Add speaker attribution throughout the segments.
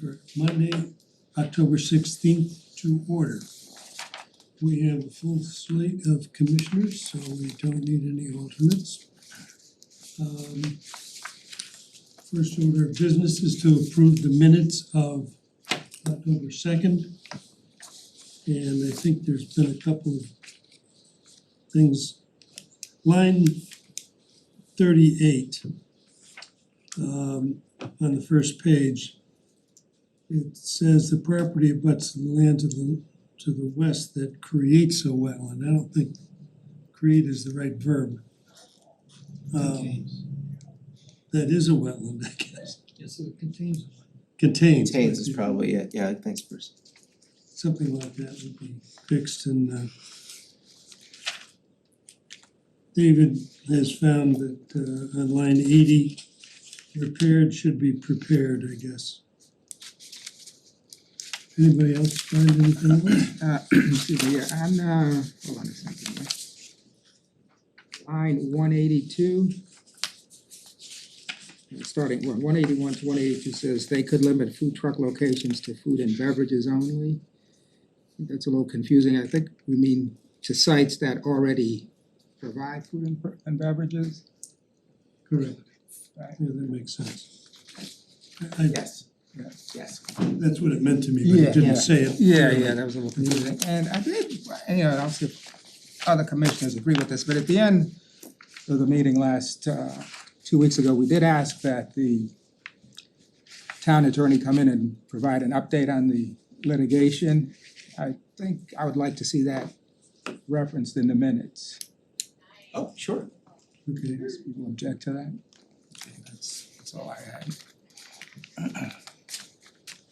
Speaker 1: for Monday, October sixteenth to order. We have a full slate of commissioners, so we don't need any alternates. Um first order of business is to approve the minutes of October second. And I think there's been a couple of things. Line thirty-eight um on the first page. It says the property abuts the land to the to the west that creates a wetland. I don't think create is the right verb. Um
Speaker 2: Contains.
Speaker 1: that is a wetland, I guess.
Speaker 2: Yes, it contains.
Speaker 1: Contains.
Speaker 3: Contains is
Speaker 1: but-
Speaker 3: probably it, yeah, thanks Bruce.
Speaker 1: something like that would be fixed and uh David has found that uh on line eighty, repaired should be prepared, I guess. Anybody else find anything else?
Speaker 4: Uh, excuse me, yeah, on, uh, hold on a second here. Line one eighty-two. Starting, one, one eighty-one to one eighty-two says they could limit food truck locations to food and beverages only. That's a little confusing, I think we mean to sites that already provide food and per- and beverages.
Speaker 1: Correct.
Speaker 4: Right.
Speaker 1: Yeah, that makes sense. I I
Speaker 3: Yes, yes.
Speaker 1: that's what it meant to me, but
Speaker 4: Yeah,
Speaker 1: it didn't
Speaker 4: yeah.
Speaker 1: say it.
Speaker 4: Yeah, yeah, that was a little confusing, and I did, you know, I'll see if other commissioners agree with this, but at the end of the meeting last uh two weeks ago, we did ask that the town attorney come in and provide an update on the litigation. I think I would like to see that referenced in the minutes,
Speaker 3: Oh, sure.
Speaker 1: Okay,
Speaker 4: Does people object to that? Okay, That's that's all I had.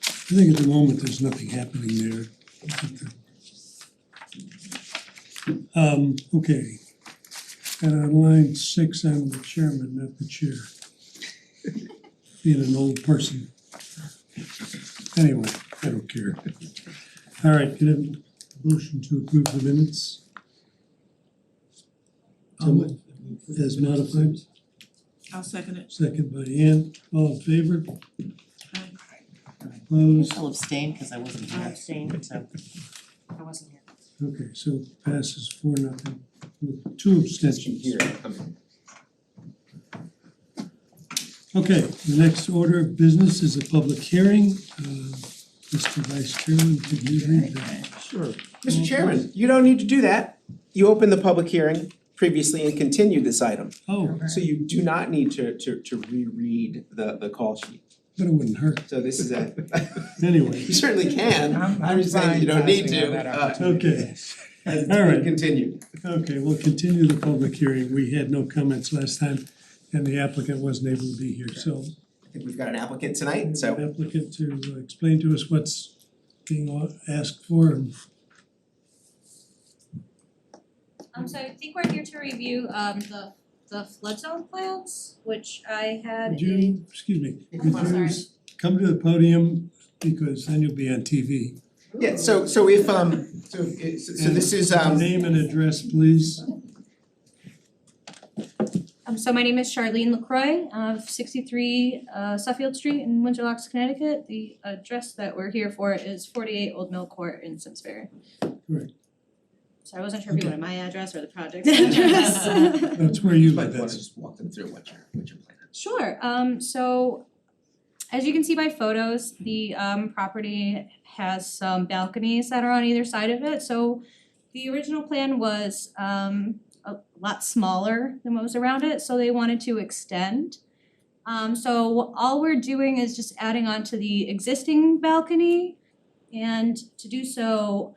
Speaker 1: I think at the moment, there's nothing happening there. Um, okay. And on line six, I'm the chairman, not the chair. Being an old person. Anyway, I don't care. All right, can I have a motion to approve the minutes? As modified,
Speaker 5: I'll second it.
Speaker 1: second by Ann, all in favor,
Speaker 5: Aye.
Speaker 1: opposed?
Speaker 6: I'll abstain, cause I wasn't here.
Speaker 5: I'll
Speaker 6: abstain, so I wasn't here.
Speaker 1: Okay, so passes four nothing with two abstentions. Okay, the next order of business is a public hearing. Uh, Mr. Vice Chairman, could you read that?
Speaker 3: Sure. Mr. Chairman, you don't need to do that. You opened the public hearing previously and continued this item.
Speaker 1: Oh,
Speaker 3: So you do not need to to to reread the the call sheet.
Speaker 1: but it wouldn't hurt.
Speaker 3: So this is a,
Speaker 1: Anyway,
Speaker 3: you certainly can,
Speaker 4: I'm-
Speaker 3: I'm just saying you don't
Speaker 4: I'm fine
Speaker 3: need
Speaker 4: passing on
Speaker 3: to.
Speaker 4: that
Speaker 3: uh,
Speaker 4: opportunity.
Speaker 1: okay.
Speaker 3: as it's
Speaker 1: All right.
Speaker 3: been continued.
Speaker 1: Okay, we'll continue the public hearing. We had no comments last time and the applicant wasn't able to be here, so
Speaker 3: I think we've got an applicant tonight, so
Speaker 1: applicant to explain to us what's being au- asked for and
Speaker 7: Um so I think we're here to review um the the flood zone plans, which I had
Speaker 1: Would
Speaker 7: in
Speaker 1: you, excuse me,
Speaker 7: Oh,
Speaker 1: could
Speaker 7: I'm
Speaker 1: you
Speaker 7: sorry.
Speaker 1: s- come to the podium because then you'll be on TV.
Speaker 3: yeah, so so if um so it- so so this is um
Speaker 1: Name and address, please.
Speaker 7: um so my name is Charlene Lacroix of sixty three uh Suffield Street in Winterlocks, Connecticut. The address that we're here for is forty eight Old Mill Court in Simsbury.
Speaker 1: Correct.
Speaker 7: So I wasn't sure if you
Speaker 1: Okay.
Speaker 7: wanted my address or the project address.
Speaker 1: That's where you live,
Speaker 3: But why don't
Speaker 1: that's
Speaker 3: you just walk them through what your what your plan is.
Speaker 7: Sure, um so as you can see by photos, the um property has some balconies that are on either side of it, so the original plan was um a lot smaller than what was around it, so they wanted to extend. Um so all we're doing is just adding on to the existing balcony and to do so,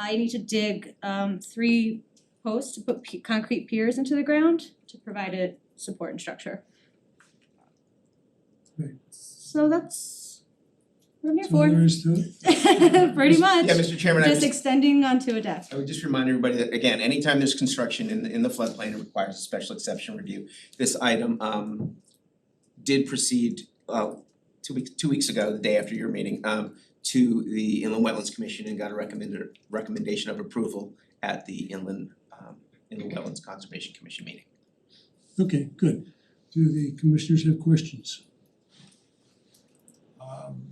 Speaker 7: I need to dig um three posts to put pe- concrete piers into the ground to provide it support and structure. So that's what I'm here
Speaker 1: that's all there
Speaker 7: for.
Speaker 1: is to it.
Speaker 7: Pretty much.
Speaker 3: Yeah, Mr. Chairman, I
Speaker 7: Just
Speaker 3: just
Speaker 7: extending onto a deck.
Speaker 3: I would just remind everybody that, again, anytime there's construction in the in the floodplain, it requires a special exception review. This item um did proceed uh two weeks, two weeks ago, the day after your meeting, um to the Inland Wetlands Commission and got a recommended recommendation of approval at the Inland um Inland Wetlands Conservation Commission meeting.
Speaker 1: Okay, good. Do the commissioners have questions?
Speaker 2: Um,